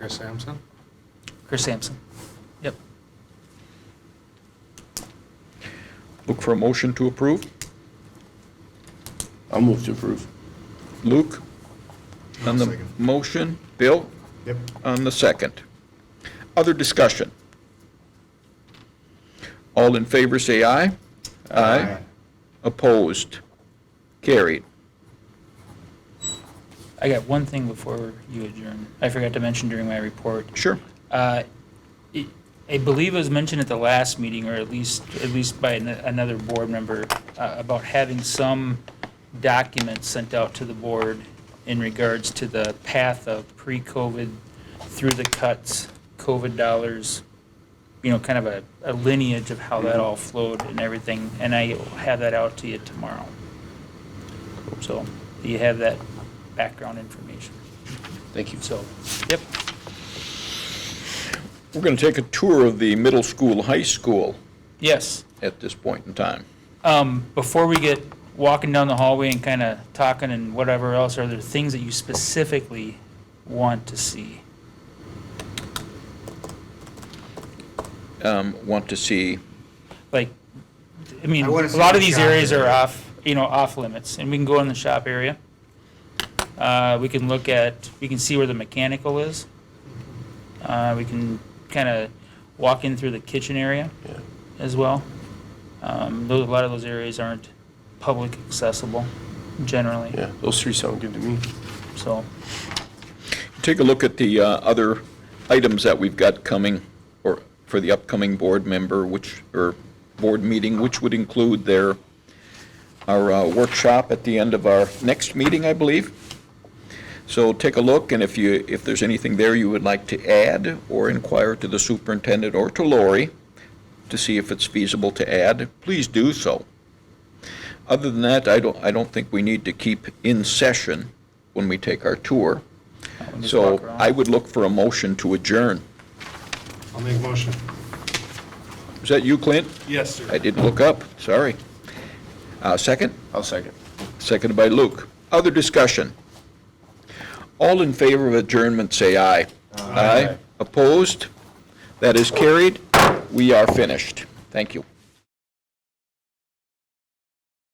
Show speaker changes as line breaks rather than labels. Chris Sampson?
Chris Sampson. Yep.
Look for a motion to approve.
I'll move to approve.
Luke on the
Second.
motion, Bill
Yep.
on the second. Other discussion? All in favor, say aye. Opposed? Carried.
I got one thing before you adjourn. I forgot to mention during my report.
Sure.
Uh, it- I believe it was mentioned at the last meeting, or at least, at least by an- another board member, uh, about having some documents sent out to the board in regards to the path of pre-COVID through the cuts, COVID dollars, you know, kind of a- a lineage of how that all flowed and everything, and I will have that out to you tomorrow. So you have that background information.
Thank you.
So, yep,
We're going to take a tour of the middle school, high school
yes.
at this point in time.
Um, before we get walking down the hallway and kind of talking and whatever else, are there things that you specifically want to see?
Um, Want to see,
Like, I mean,
I
a
wanna see
lot of
the
these
shop
areas are
area.
off, you know, off limits, and we can go in the shop area. Uh, we can look at, we can see where the mechanical is. Uh, we can kind of walk in through the kitchen area
Yeah.
as well. Um, those, a lot of those areas aren't public accessible generally,
Yeah, those three sound good to me.
so.
take a look at the uh, other items that we've got coming, or for the upcoming board member, which, or board meeting, which would include their, our uh, workshop at the end of our next meeting, I believe. So take a look, and if you, if there's anything there you would like to add, or inquire to the superintendent or to Lori to see if it's feasible to add, please do so. Other than that, I don't, I don't think we need to keep in session when we take our tour.
we just
So
walk around.
I would look for a motion to adjourn.
I'll make a motion.
Is that you, Clint?
Yes, sir.
I didn't look up, sorry. Uh, Second?
I'll second.
Seconded by Luke. Other discussion? All in favor of adjournment, say aye. Aye. Opposed? That is carried. We are finished. Thank you.